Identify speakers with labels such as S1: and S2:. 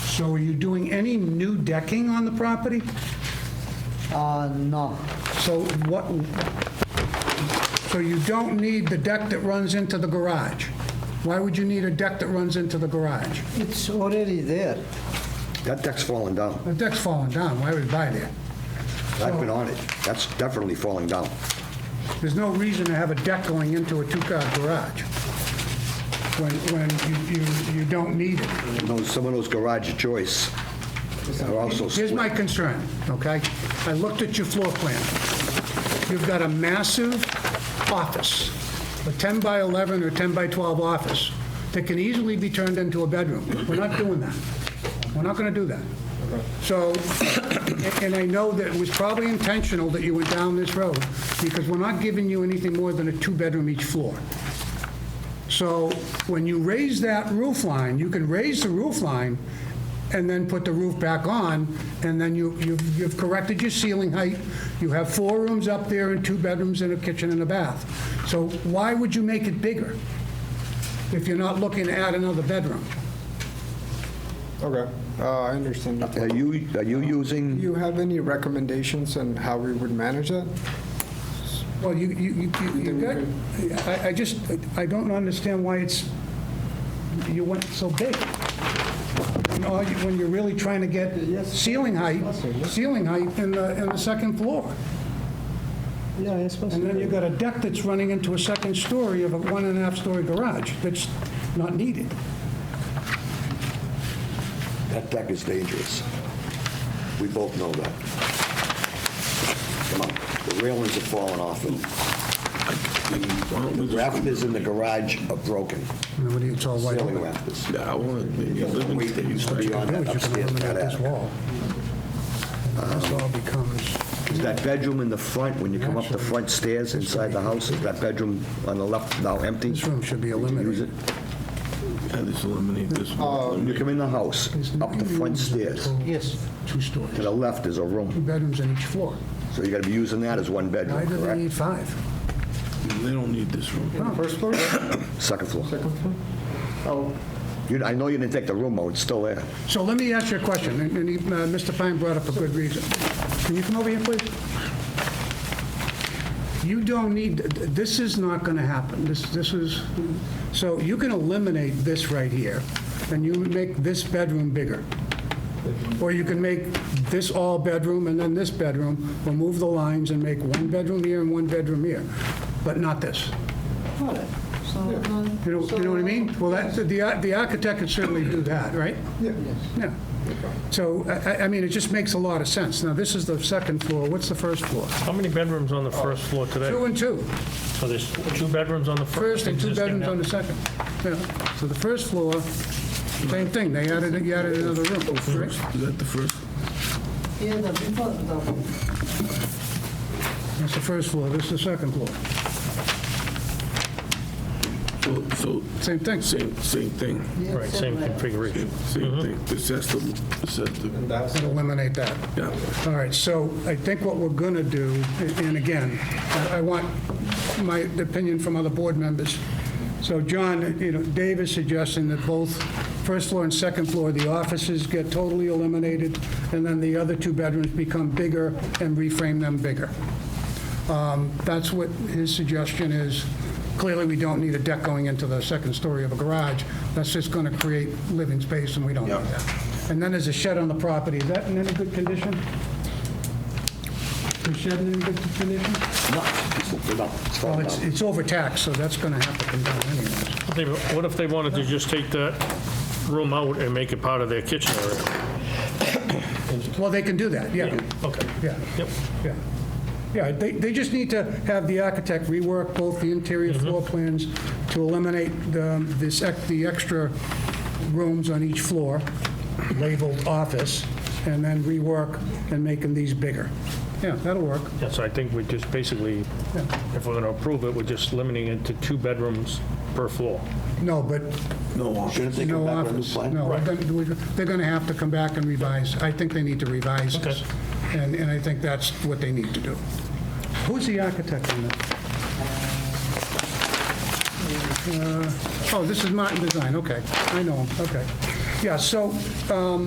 S1: So are you doing any new decking on the property?
S2: Uh, no,
S1: So what, so you don't need the deck that runs into the garage? Why would you need a deck that runs into the garage?
S2: it's already there.
S3: That deck's falling down.
S1: The deck's falling down, why would you buy that?
S3: I've been on it. That's definitely falling down.
S1: There's no reason to have a deck going into a two-car garage when, when you, you, you don't need it.
S3: And those- Some of those garage joists are also
S1: Here's my
S3: split.
S1: concern, okay? I looked at your floor plan. You've got a massive office, a 10 by 11 or 10 by 12 office that can easily be turned into a bedroom. We're not doing that. We're not going to do that. So, and I know that it was probably intentional that you went down this road because we're not giving you anything more than a two-bedroom each floor. So when you raise that roof line, you can raise the roof line and then put the roof back on, and then you, you've you've corrected your ceiling height. You have four rooms up there and two bedrooms and a kitchen and a bath. So why would you make it bigger if you're not looking to add another bedroom?
S4: Okay, uh, I understand. your
S3: Are
S4: point.
S3: you, are you
S4: Do
S3: using,
S4: you have any recommendations on how we would manage that?
S1: Well, you, you, you- you, you got, I, I just, I don't understand why it's, you went so big. When all you- When you're really trying to get ceiling height, ceiling height in the, in the second floor.
S2: Yeah, it's possible.
S1: And then you've got a deck that's running into a second story of a one and a half story garage that's not needed.
S3: that deck is dangerous. We both know that. Come on, the railings are falling off and the rafters in the garage are broken.
S1: And what do you- It's all white.
S3: Ceiling rafters.
S5: Yeah, I want to
S3: The weight that used to be on that
S1: You're gonna
S3: upstairs,
S1: eliminate this
S3: that attic.
S1: wall. And This all becomes,
S3: Is that bedroom in the front, when you come up the front stairs inside the house, is that bedroom on the left now empty?
S1: this room should be
S3: We can use
S1: eliminated.
S3: it?
S5: At least eliminate this one.
S3: When you come in the house, up the front stairs,
S2: Yes,
S1: Two stories,
S3: to the left is a
S1: two
S3: room.
S1: bedrooms on each floor.
S3: So you got to be using that as one
S1: Why
S3: bedroom,
S1: do they
S3: correct?
S1: need five?
S5: They don't need this room.
S4: First floor?
S3: Second floor.
S4: Oh,
S3: You- I know you didn't take the room out, it's still there.
S1: So let me ask you a question, and and he- uh, Mr. Fine brought up a good reason. Can you come over here, please? You don't need, this is not going to happen. This, this is, so you can eliminate this right here, and you would make this bedroom bigger. Or you can make this all bedroom and then this bedroom, remove the lines and make one bedroom here and one bedroom here, but not this.
S2: all right. So, uh,
S1: You know, you know what I mean? Well, that, the, ar- the architect could certainly do that, right?
S4: yeah.
S1: Yeah. So, I, I- I mean, it just makes a lot of sense. Now, this is the second floor. What's the first floor?
S6: How many bedrooms on the first floor today?
S1: Two and two.
S6: So there's two bedrooms on the fir-
S1: First and two
S6: existing
S1: bedrooms on the
S6: now.
S1: second. Yeah. So the first floor, same thing. They added, you added another room. right?
S5: Is that the first?
S2: yeah, the before, the,
S1: That's the first floor. This is the second floor.
S5: So, so,
S1: Same thing.
S5: same, same thing,
S2: yeah,
S6: Right, same configuration.
S5: same thing. This has to, this has to,
S4: That's,
S1: Eliminate that.
S5: yeah.
S1: All right, so I think what we're going to do, and again, I I want my opinion from other board members. So John, you know, Dave is suggesting that both first floor and second floor, the offices get totally eliminated, and then the other two bedrooms become bigger and reframe them bigger. Um, That's what his suggestion is. Clearly, we don't need a deck going into the second story of a garage. That's just going to create living space, and we don't need that. And then there's a shed on the property. Is that in any good condition? The shed in any good condition?
S3: No, it's- no, it's
S1: Well,
S3: falling
S1: it's,
S3: down.
S1: it's overtaxed, so that's going to have to come down anyways.
S6: They- What if they wanted to just take that room out and make it part of their kitchen area?
S1: Well, they can do that, yeah,
S6: Okay.
S1: yeah.
S6: Yep.
S1: Yeah, yeah. they, they just need to have the architect rework both the interior floor plans to eliminate the, this, ex- the extra rooms on each floor labeled office, and then rework and making these bigger. Yeah, that'll work.
S6: Yeah, so I think we just basically, if we're going to approve it, we're just limiting it to two bedrooms per floor.
S1: No, but
S3: No office. Shouldn't they
S1: no
S3: come back with a new
S1: office.
S3: plan?
S1: No, they're gonna- we're- they're going to have to come back and revise. I think they need to revise this. And, and I think that's what they need to do. Who's the architect on that? Uh, Oh, this is Martin Design, okay. I know him, okay. Yeah, so, um,